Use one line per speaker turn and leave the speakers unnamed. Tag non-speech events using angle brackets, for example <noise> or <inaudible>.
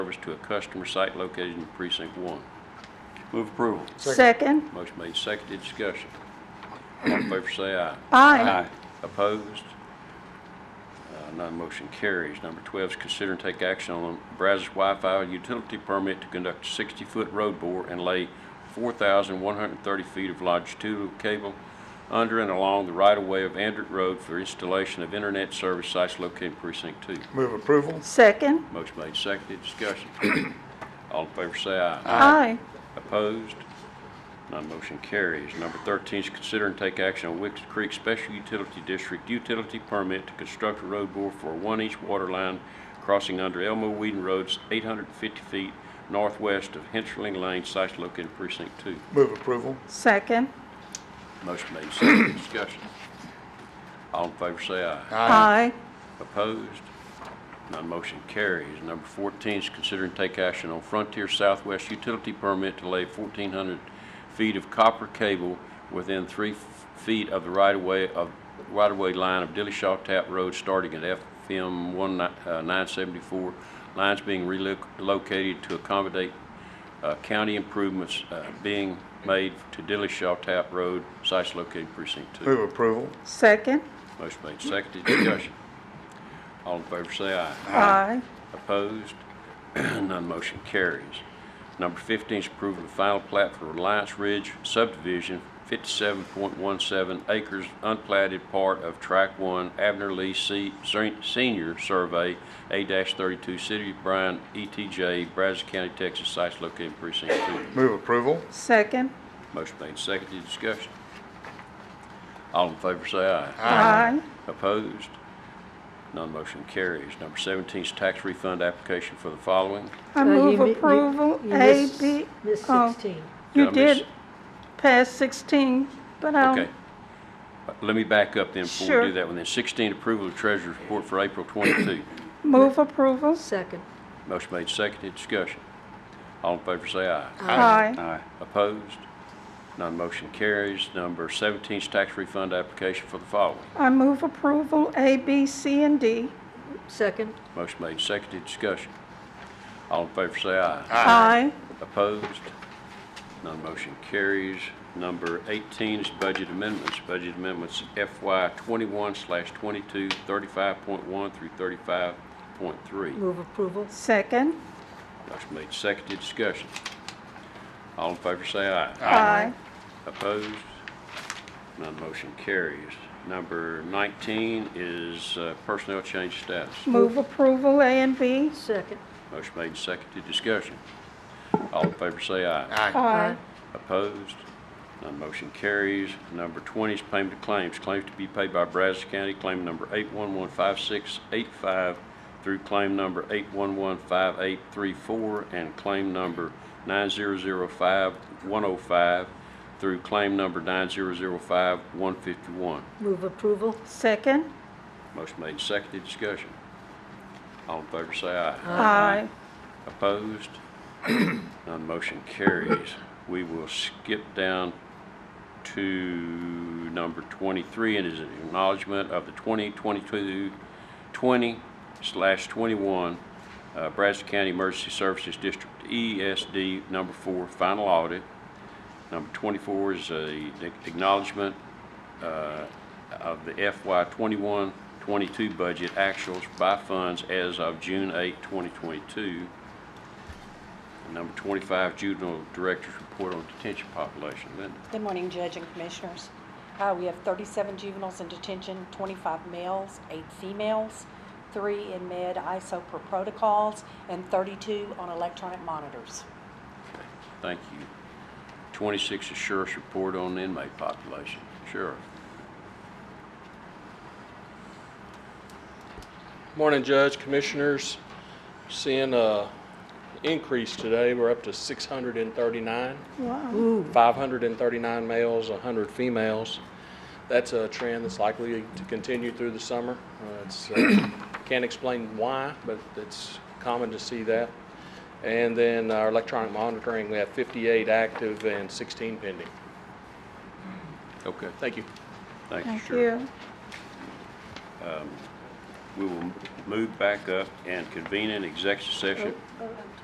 service to a customer site located in precinct one. Move approval.
Second.
Motion made, seconded, discussion. All in favor say aye.
Aye.
Opposed? Uh, None motion carries. Number 12 is consider and take action on Brazos Wi-Fi utility permit to conduct a 60-foot road bore and lay 4,130 feet of longitudinal cable under and along the right-of-way of Andrew Road for installation of internet service sites located in precinct 2.
Move approval.
Second.
Motion made, seconded, discussion. <clears throat> All in favor say aye.
Aye.
Opposed? None motion carries. Number 13 is consider and take action on Wicks Creek Special Utility District utility permit to construct a road bore for a one-inch water line crossing under Elmo Whedon Roads, 850 feet northwest of Hensling Lane, site located in precinct 2.
Move approval.
Second.
Motion made, seconded, discussion. All in favor say aye.
Aye.
Opposed? None motion carries. Number 14 is consider and take action on Frontier Southwest utility permit to lay 1,400 feet of copper cable within three f- feet of the right-of-way of right-of-way line of Dillashaw Tap Road starting at FM 974, uh, lines being relocated to accommodate uh, county improvements uh, being made to Dillashaw Tap Road, sites located precinct 2.
Move approval.
Second.
Motion made, seconded, discussion. All in favor say aye.
Aye.
Opposed? <clears throat> None motion carries. Number 15 is approval of final plat for Reliance Ridge subdivision, 57.17 acres, unplatted part of Track 1, Abner Lee Se- Se- Senior Survey, A-32, City of Bryan, ETJ, Brazos County, Texas, sites located in precinct 2.
Move approval.
Second.
Motion made, seconded, discussion. All in favor say aye.
Aye.
Opposed? None motion carries. Number 17 is tax refund application for the following.
I
Uh, you
move
mi- you-
approval,
you
A,
missed-
B.
Missed
oh,
16.
Did
You
I miss-
did pass 16, but
Okay.
I'll,
Uh, Let me back up then before we
Um, Sure.
do that one. Then 16, approval of treasurer's report for April
<clears throat>
22.
move approval.
Second.
Motion made, seconded, discussion. All in favor say aye.
Aye.
Opposed? None motion carries. Number 17 is tax refund application for the following.
I move approval, A, B, C, and D.
Second.
Motion made, seconded, discussion. All in favor say aye.
Aye.
Opposed? None motion carries. Number 18 is budget amendments. Budget amendments FY 21/22, slash 22, 35.1 through 35.3.
Move approval.
Second.
Motion made, seconded, discussion. All in favor say aye.
Aye.
Opposed? None motion carries. Number 19 is uh, personnel change status.
Move approval, A and B.
Second.
Motion made, seconded, discussion. All in favor say aye.
Aye.
Opposed? None motion carries. Number 20 is payment of claims. Claims to be paid by Brazos County, claim number 8115685 through claim number 8115834 and claim number 9005105 through claim number 9005151.
Move approval.
Second.
Motion made, seconded, discussion. All in favor say aye.
Aye.
Opposed? None motion carries. We will skip down to number 23, and is an acknowledgement of the 2022, 20/21 uh, Brazos County Emergency Services District ESD Number 4 Final Audit. Number 24 is a acknowledgement uh, of the FY 21-22 budget actuals by funds as of June 8, 2022. And Number 25, Juvenile Director's Report on Detention Population. Linda,
Good morning, Judge and Commissioners. Uh, We have 37 juveniles in detention, 25 males, 8 females, 3 in med ISO per protocols, and 32 on electronic monitors.
thank you. 26 is Sheriff's Report on Inmate Population. Sheriff,
Morning, Judge, Commissioners. Seeing a increase today, we're up to 639,
Wow.
539 males, 100 females. That's a trend that's likely to continue through the summer. Uh, It's, uh, <coughs> can't explain why, but it's common to see that. And then our electronic monitoring, we have 58 active and 16 pending.
okay,
Thank you.
thank you,
Thank
Sheriff.
you. Oh.
We will move back up and convene an executive session.